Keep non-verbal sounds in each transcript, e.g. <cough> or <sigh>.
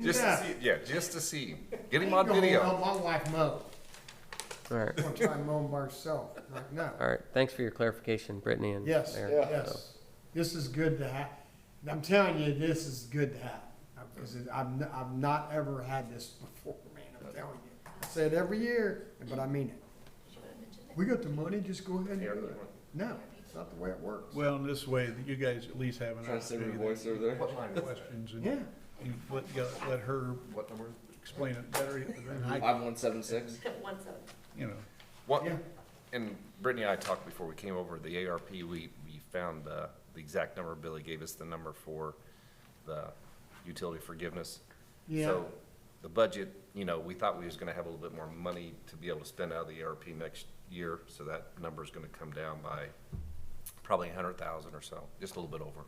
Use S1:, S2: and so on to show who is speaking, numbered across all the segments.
S1: Just to
S2: Yeah.
S1: see, yeah, just to see him. Get him on
S2: I ain't gonna
S1: video.
S2: Help my wife mow.
S3: All right,
S2: I'm gonna try and mow 'em by herself. Like, no.
S3: all right. Thanks for your clarification, Brittany and
S2: Yes,
S3: Aaron. So,
S2: yes. This is good to have. I'm telling you, this is good to have. Because it- I've, n- I've not ever had this before, man, I'm telling you. I say it every year, but I mean it. We got the money, just go ahead and do it. No, it's not the way it works.
S4: Well, in this way, that you guys at least have an
S5: Trying to save your
S4: opportunity
S5: voice
S4: to
S5: over there.
S1: What line
S4: ask
S1: is that?
S4: questions and
S2: Yeah.
S4: you let, you let her
S1: What number?
S4: explain it better than I,
S5: Five one seven six.
S6: One seven.
S4: you know.
S1: What,
S2: Yeah.
S1: and Brittany and I talked before we came over, the ARP, we, we found, uh, the exact number. Billy gave us the number for the utility forgiveness.
S2: Yeah,
S1: So the budget, you know, we thought we was gonna have a little bit more money to be able to spend out of the ARP next year, so that number's gonna come down by probably a hundred thousand or so, just a little bit over.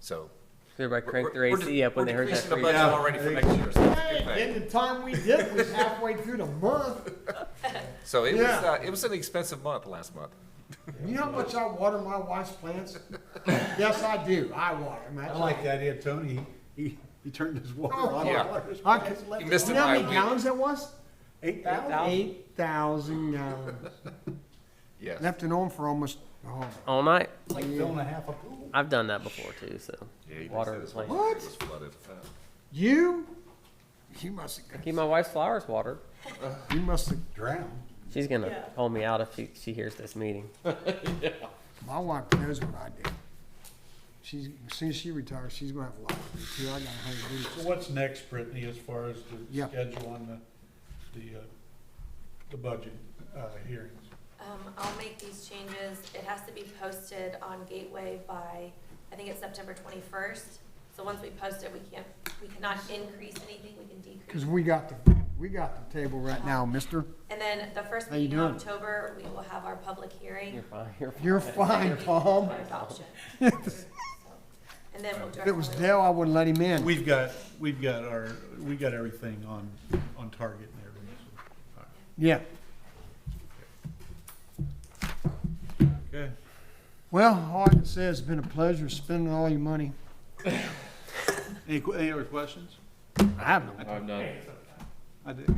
S1: So.
S3: everybody
S1: we're-
S3: cranked their
S1: we're-
S3: AC up when
S1: we're
S3: they heard that.
S1: decreasing the
S3: free-
S1: budget already for next year, so it's a good
S2: Hey,
S1: thing.
S2: in the time we did was halfway through the month.
S1: So it was,
S2: Yeah.
S1: uh, it was an expensive month last month.
S2: You know how much I water my wife's
S4: <laughs>
S2: plants? Yes, I do. I water them.
S4: I
S2: That's
S4: like the idea of Tony, he, he turned his water
S2: Oh,
S4: on.
S1: yeah.
S2: I
S4: Yeah.
S2: could-
S1: You missed
S2: You
S1: it
S2: know how
S1: by a
S2: many
S1: week.
S2: gallons that was?
S4: Eight thousand?
S2: Eight thousand gallons.
S1: Yes.
S2: Left it on for almost, oh,
S3: All night.
S4: It's like filling a half a pool.
S3: I've done that before too. So
S1: Yeah, he did
S3: water
S1: say
S3: the
S1: this
S3: plant.
S1: one
S2: What?
S1: was flooded. Uh,
S2: you? You must have,
S3: Keep my wife's flowers watered.
S2: you must have,
S4: Drown.
S3: She's gonna
S6: Yeah.
S3: call me out if she, she hears this meeting.
S2: my wife knows what I did. She's, as soon as she retires, she's gonna have a lot to do too. I gotta hang loose.
S4: So what's next, Brittany, as far as the
S2: Yeah.
S4: schedule on the, the, uh, the budget, uh, hearings?
S6: Um, I'll make these changes. It has to be posted on Gateway by, I think it's September twenty-first. So once we post it, we can't, we cannot increase anything, we can
S2: Cause
S6: decrease.
S2: we got the, we got the table right now, mister.
S6: And then the first
S2: How you
S6: week in
S2: doing?
S6: October, we will have our public
S3: You're
S6: hearing
S3: fine. You're fine.
S2: You're fine, Tom.
S6: for
S2: <laughs>
S6: adoption. And then we'll.
S2: If it was Dell, I wouldn't let him in.
S4: We've got, we've got our, we got everything on, on target and everything, so.
S2: Yeah.
S4: Okay.
S2: Well, all I can say is it's been a pleasure spending all your money.
S4: Any, que- any other questions?
S2: I have no.
S5: I'm done.
S4: I did.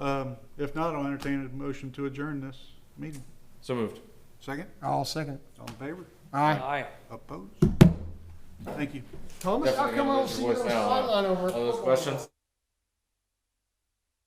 S4: Um, if not, I'll entertain a motion to adjourn this meeting.
S5: So moved.
S4: Second,
S2: I'll second. it.
S4: all in favor?
S2: Aye.
S3: Aye.
S4: Opposed? Thank you.
S2: Thomas, how come I
S5: Definitely gonna
S2: don't
S5: lose
S2: see
S5: your
S2: you Oh, on the
S5: voice now, huh?
S2: sideline over? at
S5: All those
S2: football?
S5: questions?